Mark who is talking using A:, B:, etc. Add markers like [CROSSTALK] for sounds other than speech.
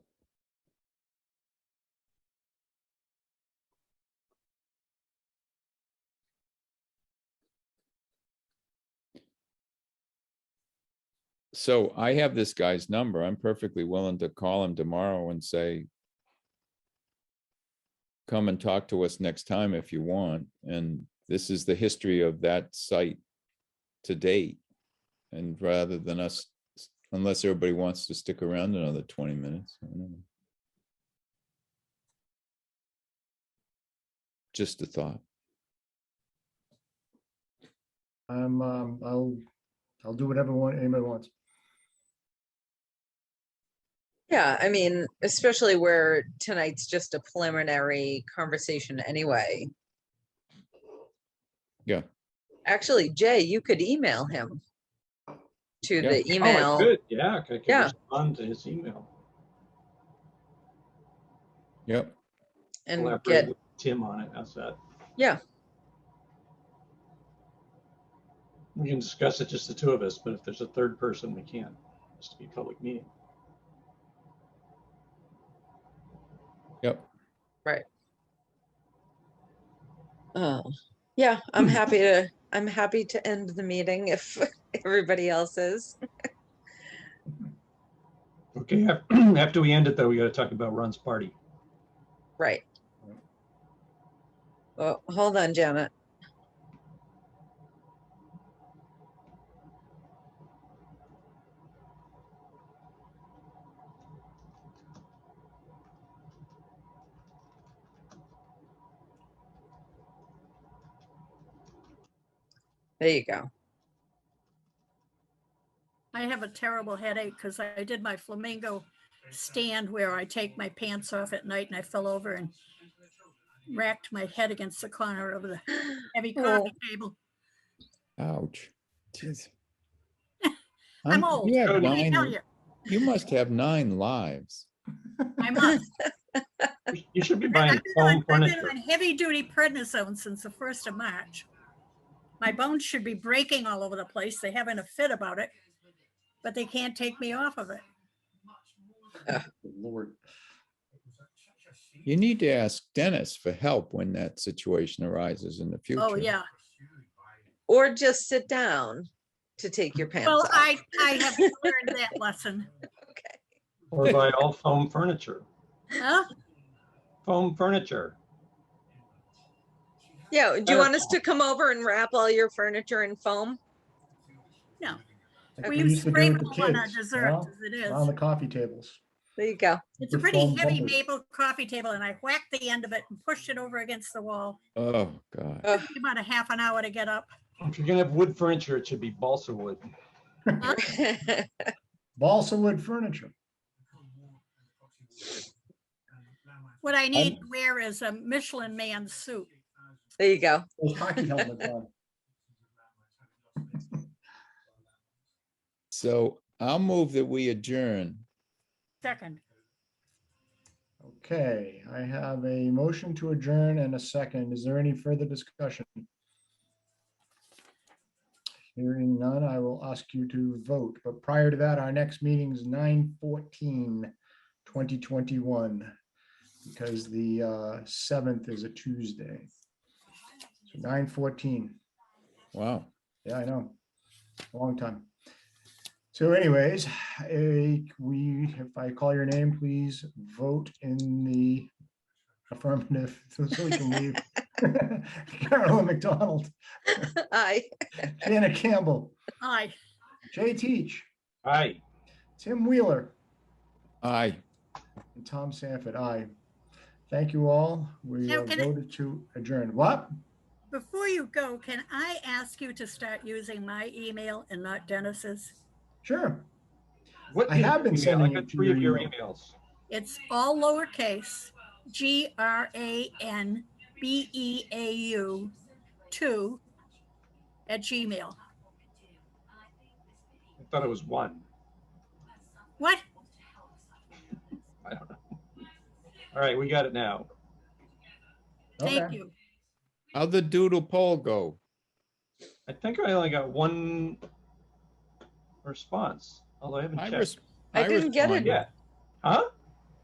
A: so I have this guy's number. I'm perfectly willing to call him tomorrow and say, come and talk to us next time if you want. And this is the history of that site to date. And rather than us, unless everybody wants to stick around another twenty minutes. I don't know. Just a thought.
B: I'm, um, I'll, I'll do whatever one, anybody wants.
C: Yeah, I mean, especially where tonight's just a preliminary conversation anyway.
A: Yeah.
C: Actually, Jay, you could email him to
A: Yeah.
C: the
D: Oh, I
C: email.
D: could, Yeah, I could
C: Yeah.
D: respond to his email.
A: Yep.
C: and
D: Collaborate
C: get,
D: with Tim on it, how's that?
C: Yeah.
D: We can discuss it, just the two of us, but if there's a third person, we can't. It has to be a public meeting.
A: Yep.
C: oh, yeah,
A: [LAUGHS]
C: I'm happy to, I'm happy to end the meeting if [LAUGHS] everybody else is.
D: Okay, af- [CLEARS THROAT] after we end it though, we gotta talk about Ron's party.
C: Right. Well, hold on, Janet. There you go.
E: I have a terrible headache because I did my flamingo stand where I take my pants off at night and I fell over and racked my head against the corner of the heavy coffee table.
A: Ouch. [LAUGHS] Jeez.
E: I'm
A: Um,
E: old.
A: You have
E: Let me tell
A: nine,
E: you,
A: you must have nine lives.
E: I'm up.
C: [LAUGHS]
D: You should be
E: I've
D: buying
E: been
D: foam
E: on- I've been
D: furniture.
E: on heavy duty prednisone since the first of March. My bones should be breaking all over the place. They're having a fit about it, but they can't take me off of it.
B: Lord.
A: You need to ask Dennis for help when that situation arises in the future.
E: Oh, yeah.
C: Or just sit down to take your pants
E: Well,
C: off.
E: I, I have learned that lesson.
C: Okay.
D: Or buy all foam furniture.
E: Huh?
D: Foam furniture.
C: Yeah, do you want us to come over and wrap all your furniture in foam?
E: No.
B: Like
E: We
B: we used
E: use
B: to do
E: spray
B: with the
E: foam on our
B: kids, you
E: desserts
B: know,
E: as it
B: On the
E: is.
B: coffee tables.
C: There you go.
E: It's a
B: with
E: pretty
B: foam
E: heavy
B: bubbles.
E: maple coffee table and I whacked the end of it and pushed it over against the wall.
A: Oh, God.
C: Ugh.
E: Took me About a half an hour to get up.
D: If you're gonna have wood furniture, it should be balsa wood.
C: [LAUGHS]
B: Balsa wood furniture.
E: What I need to wear is a Michelin man suit.
C: There you go. [LAUGHS]
B: Those hockey
E: [LAUGHS]
B: helmets on.
A: So I'll move that we adjourn.
E: Second,
B: Okay, I have a motion to adjourn and a second. Is there any further discussion? Hearing none, I will ask you to vote, but prior to that, our next meeting is 2021, Because the uh, seventh is a Tuesday. So nine fourteen.
A: Wow.
B: Yeah, I know. Long time. So anyways, eh, we, if I call your name, please vote in the affirmative [LAUGHS] so so we can leave. [LAUGHS] Carolyn McDonald,
C: Aye.
B: Janet Campbell,
E: aye.
B: Jay Teach,
D: Aye.
B: Tim Wheeler,
A: Aye.
B: and Tom Sanford. Aye. Thank you all. We
E: Now,
B: are
E: can I-
B: voted to adjourn. What?
E: Before you go, can I ask you to start using my email and not Dennis's?
B: Sure.
D: What
B: I have been
D: email?
B: sending
D: I
B: it
D: got
B: to
D: three
B: your
D: of your
B: email.
D: emails.
E: It's all lowercase, G R A N B E A U two at Gmail.
D: I thought it was one.
E: What?
D: I don't know. All right, we got it now.
E: Thank
B: Okay.
E: you.
A: How'd the doodle poll go?
D: I think I only got one response, although I haven't
A: I
D: checked.
A: res-
C: I didn't get it.
A: responded.
D: Yeah. Huh?